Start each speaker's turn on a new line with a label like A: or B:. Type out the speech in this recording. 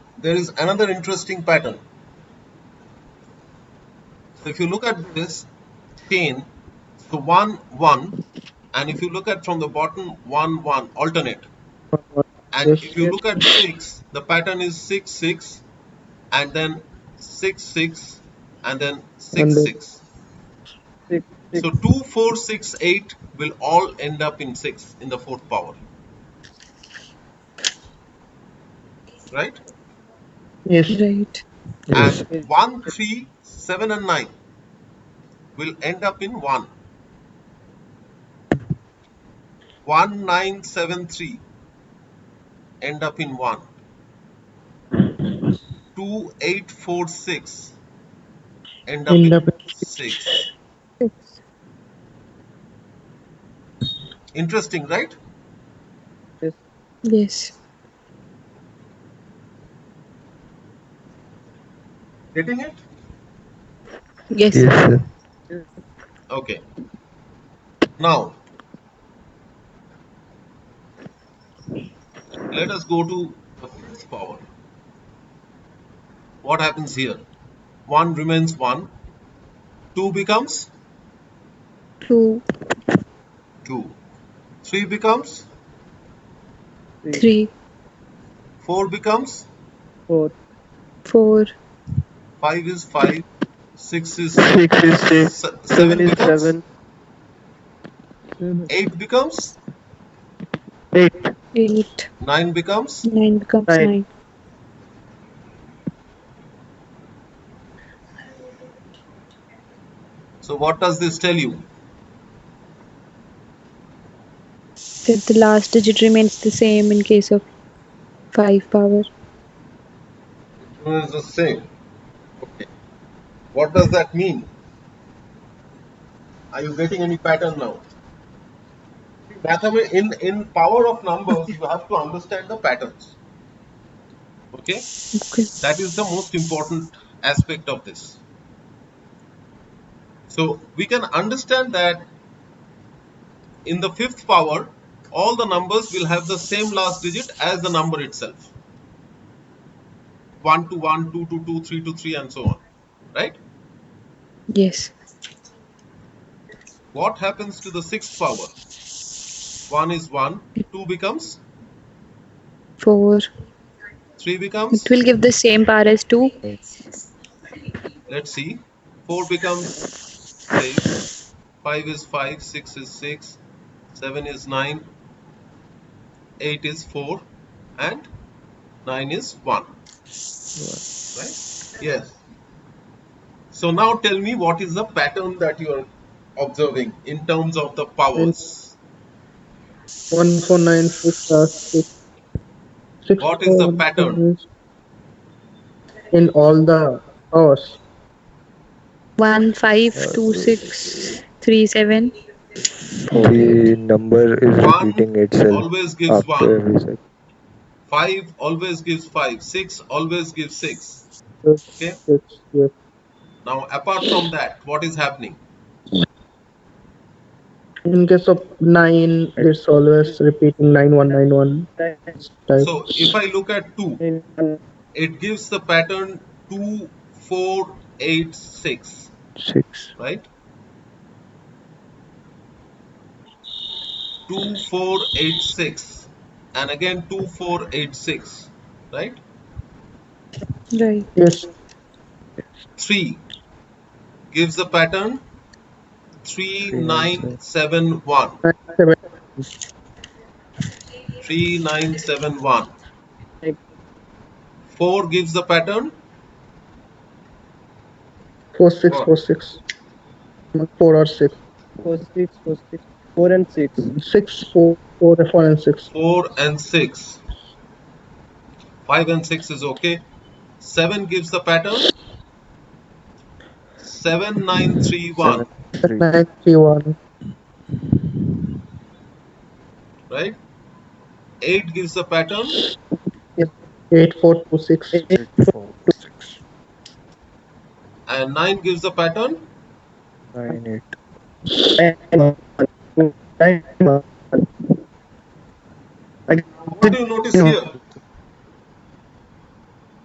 A: there is another interesting pattern. So if you look at this chain, so 1, 1, and if you look at from the bottom, 1, 1, alternate. And
B: Yes,
A: if you
B: yes.
A: look at 6, the pattern is 6, 6, and then 6, 6, and then 6,
B: And then
A: 6.
B: Six, six.
A: So 2, 4, 6, 8 will all end up in 6 in the fourth power, right?
B: Yes.
C: Right.
B: Yes.
A: And 1, 3, 7, and 9 will end up in 1. 1, 9, 7, 3 end up in 1. 2, 8, 4, 6 end up
B: End
A: in
B: up in
A: 6.
C: Six.
A: Interesting, right?
B: Yes.
C: Yes.
A: Getting it?
C: Yes.
B: Yes. Yes.
A: Okay. Now, let us go to the fifth power. What happens here? 1 remains 1. 2 becomes
C: Two.
A: 2. 3 becomes
B: Three,
C: Three.
A: 4 becomes
B: Four.
C: Four.
A: 5 is 5. 6 is 6.
B: Six is six.
A: se-
B: Seven is
A: becomes
B: seven.
A: Eight becomes
B: Eight.
C: Eight.
A: nine becomes
C: Nine becomes
B: Nine.
C: nine.
A: so what does this tell you
C: That the last digit remains the same in case of five power.
A: it is the same okay what does that mean are you getting any pattern now Mathema- in in power of numbers you have to understand the patterns okay
C: Okay.
A: that is the most important aspect of this so we can understand that in the fifth power all the numbers will have the same last digit as the number itself 1 to 1, 2 to 2, 3 to 3, and so on. Right?
C: Yes.
A: What happens to the sixth power? 1 is 1, 2 becomes,
C: Four.
A: 3
C: It
A: becomes,
C: will give the same power as two.
A: let's see, 4 becomes 6, 5 is 5, 6 is 6, 7 is 9, 8 is 4, and 9 is 1. Right? Yes. So now tell me what is the pattern that you are observing in terms of the powers.
B: One four nine six last six. Six
A: What is the
B: four
A: pattern?
B: is In all the hours.
C: One five two six three seven.
D: The number is
A: One
D: repeating itself
A: always gives
D: after
A: one.
D: every second.
A: Five always gives five. Six always gives six.
B: Six,
A: Okay.
B: six, yes.
A: Now, apart from that, what is happening?
B: In case of nine, it's always repeating nine one nine one. Type.
A: So, if I look at two, it gives the pattern two, four, eight, six.
D: Six.
A: Right? Two, four, eight, six, and again two, four, eight, six. Right?
C: Right.
B: Yes.
A: Three gives the pattern three, nine, seven, one.
B: Nine, seven.
A: 3971. 4 gives the pattern
B: Four six four six. Four or six.
E: four six four six four and six
B: Six four four four and six.
A: 4 and 6. 5 and 6 is okay. 7 gives the pattern 7931.
D: Three.
B: Nine three one.
A: Right? 8 gives the pattern
B: Eight four two six.
D: Eight, four, six,
A: and 9 gives the pattern
D: nine, eight.
A: What do you notice here?